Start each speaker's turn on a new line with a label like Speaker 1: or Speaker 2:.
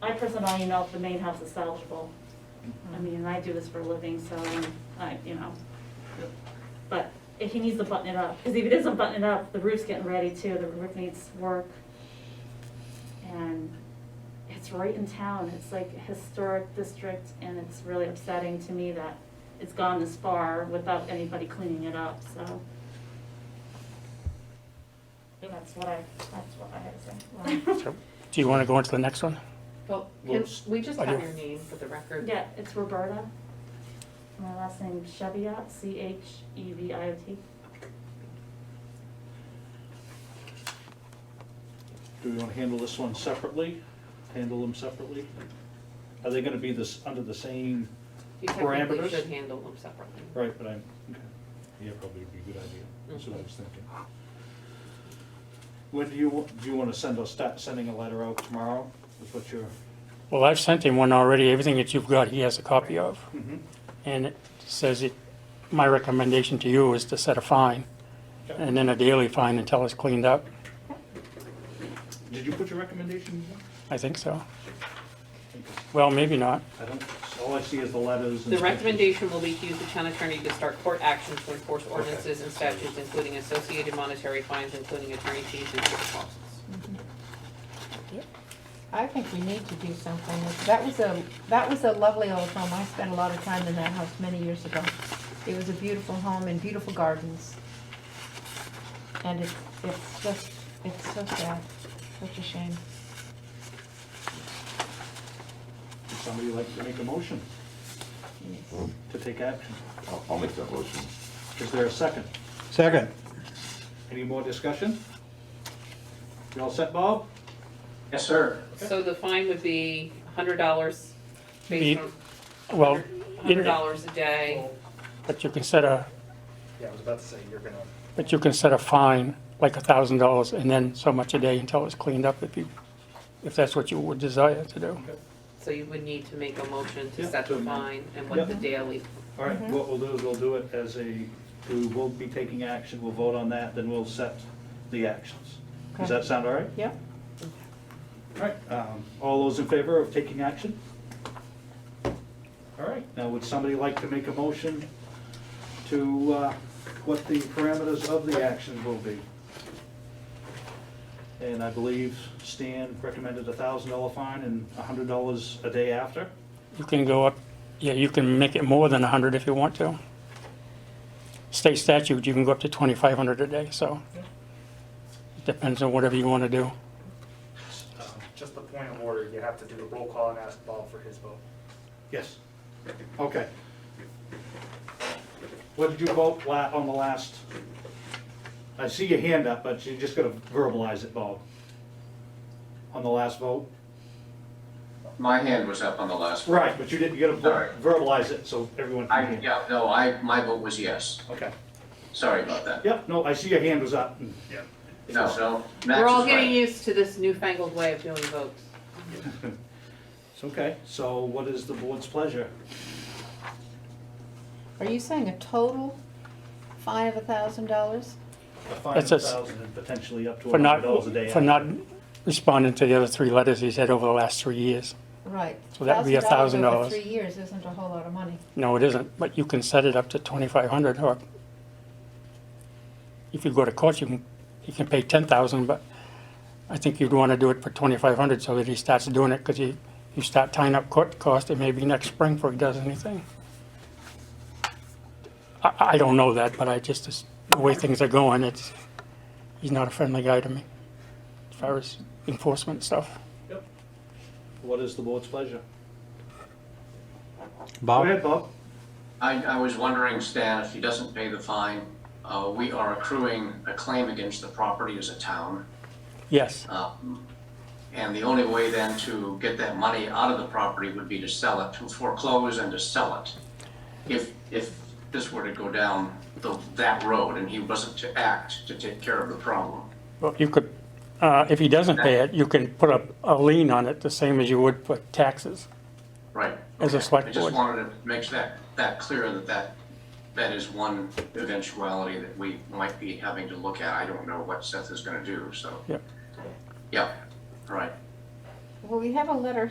Speaker 1: I personally know if the main house is salvageable. I mean, I do this for a living, so I, you know. But if he needs to button it up, because if he doesn't button it up, the roof's getting ready too, the roof needs work. And it's right in town, it's like a historic district, and it's really upsetting to me that it's gone this far without anybody cleaning it up, so. That's what I, that's what I had to say.
Speaker 2: So, Do you want to go into the next one?
Speaker 3: Well,
Speaker 2: Well,
Speaker 3: can we just
Speaker 2: I
Speaker 3: have
Speaker 2: do.
Speaker 3: your name for the record?
Speaker 1: Yeah, it's Roberta. My last name Cheviot, C H E V I O T.
Speaker 4: Do we want to handle this one separately? Handle them separately? Are they going to be this, under the same,
Speaker 3: You technically
Speaker 4: Parameters?
Speaker 3: should handle them separately.
Speaker 4: right, but I'm, okay. yeah, probably would be a good idea. That's what I was thinking. When do you, wa- do you want to send us, start sending a letter out tomorrow? Is what you're,
Speaker 2: Well, I've sent him one already. Everything that you've got, he has a copy of.
Speaker 4: Mhm.
Speaker 2: And it says it, my recommendation to you is to set a fine
Speaker 4: Okay.
Speaker 2: and then a daily fine until it's cleaned up.
Speaker 4: did you put your recommendation? in?
Speaker 2: I think so. Well, maybe not.
Speaker 4: I don't, all I see is the letters. and-
Speaker 3: The recommendation will be to use the town attorney to start court actions to enforce ordinances and statutes, including associated monetary fines, including attorney fees and court costs.
Speaker 5: I think we need to do something. That was a, that was a lovely old home. I spent a lot of time in that house many years ago. It was a beautiful home and beautiful gardens. And it, it's just, it's so sad, such a shame.
Speaker 4: Would Somebody like to make a motion to take action.
Speaker 6: I'll, I'll make that motion.
Speaker 4: Is there a second?
Speaker 7: Second.
Speaker 4: Any more discussion? You all set, Bob?
Speaker 7: Yes, sir.
Speaker 3: So the fine would be hundred dollars
Speaker 2: Be-
Speaker 3: based on.
Speaker 2: Well,
Speaker 3: Hundred
Speaker 2: it-
Speaker 3: dollars a day.
Speaker 2: but you can set a,
Speaker 7: Yeah, I was about to say, you're gonna.
Speaker 2: but you can set a fine, like a thousand dollars, and then so much a day until it's cleaned up if you, if that's what you would desire to do.
Speaker 3: So you would need to make a motion to
Speaker 4: Yeah,
Speaker 3: set
Speaker 4: to
Speaker 3: the fine
Speaker 4: amend.
Speaker 3: and what the
Speaker 4: Yeah.
Speaker 3: daily.
Speaker 4: All right, what we'll do is we'll do it as a, we will be taking action, we'll vote on that, then we'll set the actions. Does
Speaker 5: Okay.
Speaker 4: that sound all right?
Speaker 5: Yep.
Speaker 4: All right, um, all those in favor of taking action? All right, now would somebody like to make a motion to, uh, what the parameters of the action will be? And I believe Stan recommended a thousand dollar fine and a hundred dollars a day after?
Speaker 2: You can go up, yeah, you can make it more than a hundred if you want to. State statute, you can go up to twenty-five hundred a day, so. it Depends on whatever you want to do.
Speaker 7: um, Just the point of order, you have to do the roll call and ask Bob for his vote.
Speaker 4: Yes. Okay. What did you vote la, on the last? I see your hand up, but you just gotta verbalize it, Bob. On the last vote?
Speaker 8: My hand was up on the last one.
Speaker 4: Right, but you didn't, you gotta ver- verbalize it so everyone
Speaker 8: I,
Speaker 4: can hear.
Speaker 8: yeah, no, I, my vote was yes.
Speaker 4: Okay.
Speaker 8: Sorry about that.
Speaker 4: Yep, no, I see your hand was up. and-
Speaker 8: No, so Max
Speaker 3: We're all
Speaker 8: is
Speaker 3: getting
Speaker 8: right.
Speaker 3: used to this newfangled way of doing votes.
Speaker 4: It's okay. So what is the board's pleasure?
Speaker 5: Are you saying a total fine of a thousand dollars?
Speaker 4: A fine
Speaker 2: That's
Speaker 4: of
Speaker 2: us.
Speaker 4: 1,000 and potentially up to
Speaker 2: For not,
Speaker 4: $100 a day.
Speaker 2: for not responding to the other three letters he's had over the last three years.
Speaker 5: Right.
Speaker 2: So that'd be $1,000.
Speaker 5: over three years isn't a whole lot of money.
Speaker 2: No, it isn't, but you can set it up to twenty-five hundred or if you go to court, you can, you can pay ten thousand, but I think you'd want to do it for twenty-five hundred so that he starts doing it, because you, you start tying up court costs, it may be next spring before he does anything. I, I don't know that, but I just, it's the way things are going, it's, he's not a friendly guy to me as far as enforcement stuff.
Speaker 4: Yep. What is the board's pleasure? Go
Speaker 7: Bob?
Speaker 4: ahead, Bob.
Speaker 8: I, I was wondering, Stan, if he doesn't pay the fine, uh, we are accruing a claim against the property as a town.
Speaker 2: Yes,
Speaker 8: Um, And the only way then to get that money out of the property would be to sell it, to foreclose and to sell it. If, if this were to go down the, that road and he wasn't to act to take care of the problem.
Speaker 2: Well, you could, uh, if he doesn't pay it, you can put up a lien on it, the same as you would for taxes.
Speaker 8: Right.
Speaker 2: As a
Speaker 8: okay.
Speaker 2: select
Speaker 8: I just
Speaker 2: board.
Speaker 8: wanted to make that, that clear that that, that is one eventuality that we might be having to look at. I don't know what Seth is gonna do, so.
Speaker 2: Yep.
Speaker 8: Yep, right.
Speaker 5: Well, we have a letter